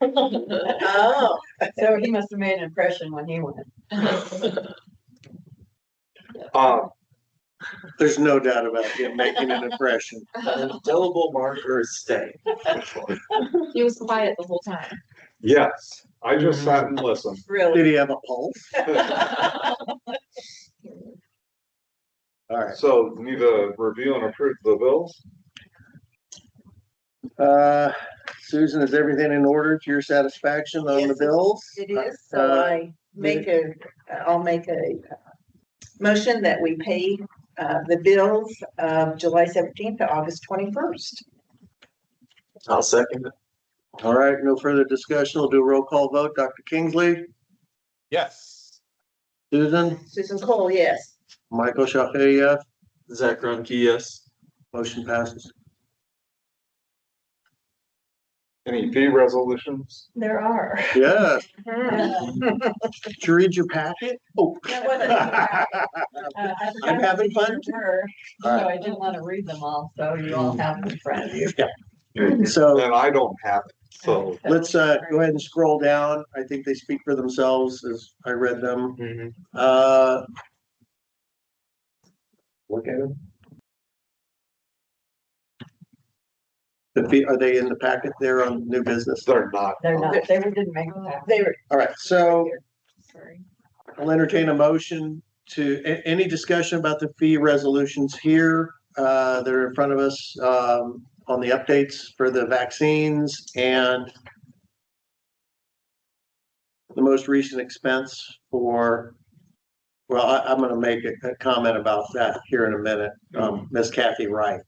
Oh, So he must have made an impression when he went. Um, there's no doubt about him making an impression. An Indelible marker is staying. He was quiet the whole time. Yes, I just sat and listened. Did really? he have a pulse? All right. So need to review and approve the bills? Uh, Susan, is everything in order to your satisfaction on the Yes, bills? It is, so I make a, I'll make a uh, motion that we pay uh the bills of July seventeenth to August twenty-first. I'll second it. All right, no further discussion. We'll do a roll call vote. Dr. Kingsley, Yes. Susan, Susan Cole, yes. Michael Shafay, yes. Zach Greinke, yes. Motion passes. Any fee resolutions? There are. Yes, Uh, did you read your packet? Oh. That wasn't in the packet. I forgot I'm having what fun. these were, So I didn't want to read them all, so you all have them in front of you. So And I don't have it, so. let's, uh, go ahead and scroll down. I think they speak for themselves as I read them. Uh, Look at it. the fee, are they in the packet there on new business? They're not. They're not, they didn't make that. They were, All right, so sorry. I'll entertain a motion to, a- any discussion about the fee resolutions here? Uh, they're in front of us, um, on the updates for the vaccines and the most recent expense for, well, I, I'm gonna make a, a comment about that here in a minute, um, Ms. Kathy Wright.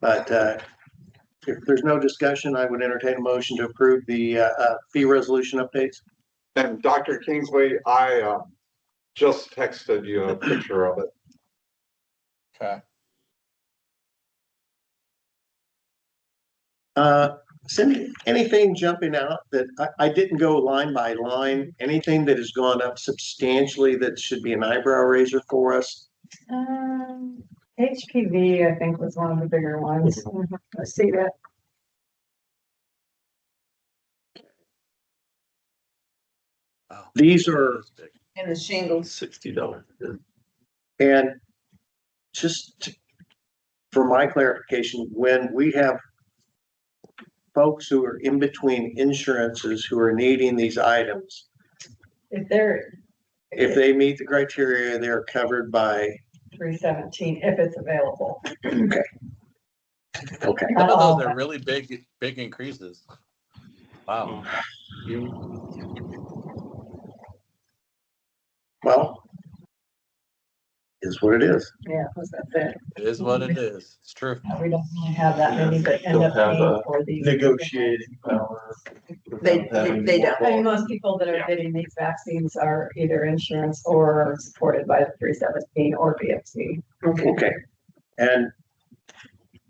But, uh, if there's no discussion, I would entertain a motion to approve the, uh, uh, fee resolution updates. And Dr. Kingsley, I, um, just texted you a picture of it. Uh, Cindy, anything jumping out that, I, I didn't go line by line, anything that has gone up substantially that should be an eyebrow raiser for us? Um, HPV, I think, was one of the bigger ones. I see that. These are, in the shingles, Sixty dollars. and just to- for my clarification, when we have folks who are in between insurances who are needing these items, If they're if they meet the criteria, they're covered by, three seventeen, if it's available. Um, okay. Not all of Those them. are really big, big increases. Wow. Well, is what it is. yeah, was that that? It is what it is. It's true. We don't really have that many that end up Don't uh, have paying a for these. Negotiating power. They- they- they don't. I mean, most people that are getting these vaccines are either insurance or supported by the three seventeen or BFC. Okay, Okay, and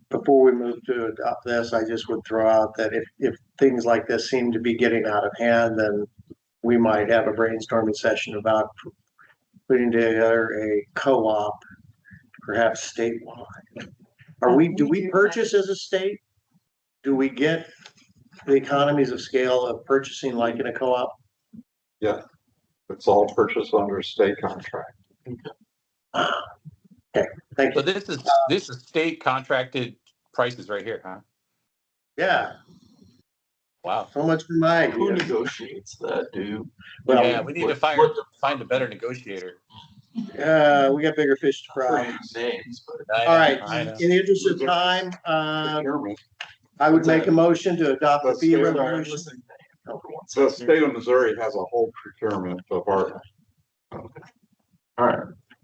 before we move to adopt this, I just would throw out that if, if things like this seem to be getting out of hand, then we might have a brainstorming session about putting together a co-op, perhaps statewide. Are we, do we purchase as a state? Do we get the economies of scale of purchasing like in a co-op? It's all purchased under state contract. Ah, Thank So you. this is, this is state contracted prices right here, huh? Yeah, Wow. so much for my Who idea. negotiates that, dude? Well, Yeah, we need to what- fire, what the find a better negotiator. uh, we got bigger fish to f- fry. are your Names, but I know, All right, I know. in the interest of time, uh, Procurement. I would make a motion to adopt the Let's fee do it. resolution. The state of Missouri has a whole procurement department. All right,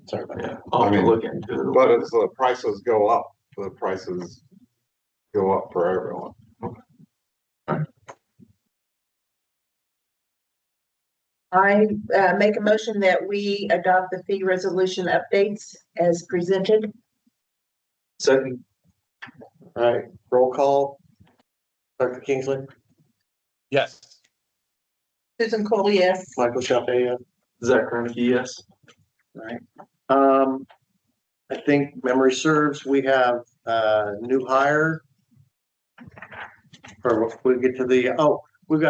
Sorry about that. yeah, I'll have I to mean, look into it. But as the prices go up, the prices go up for everyone. I uh make a motion that we adopt the fee resolution updates as presented. Second, All right, roll call. Dr. Kingsley, Yes. Susan Cole, yes. Michael Chapeya, Zach Greinke, yes. right? Um, I think memory serves, we have, uh, new hire. Or we'll get to the, oh,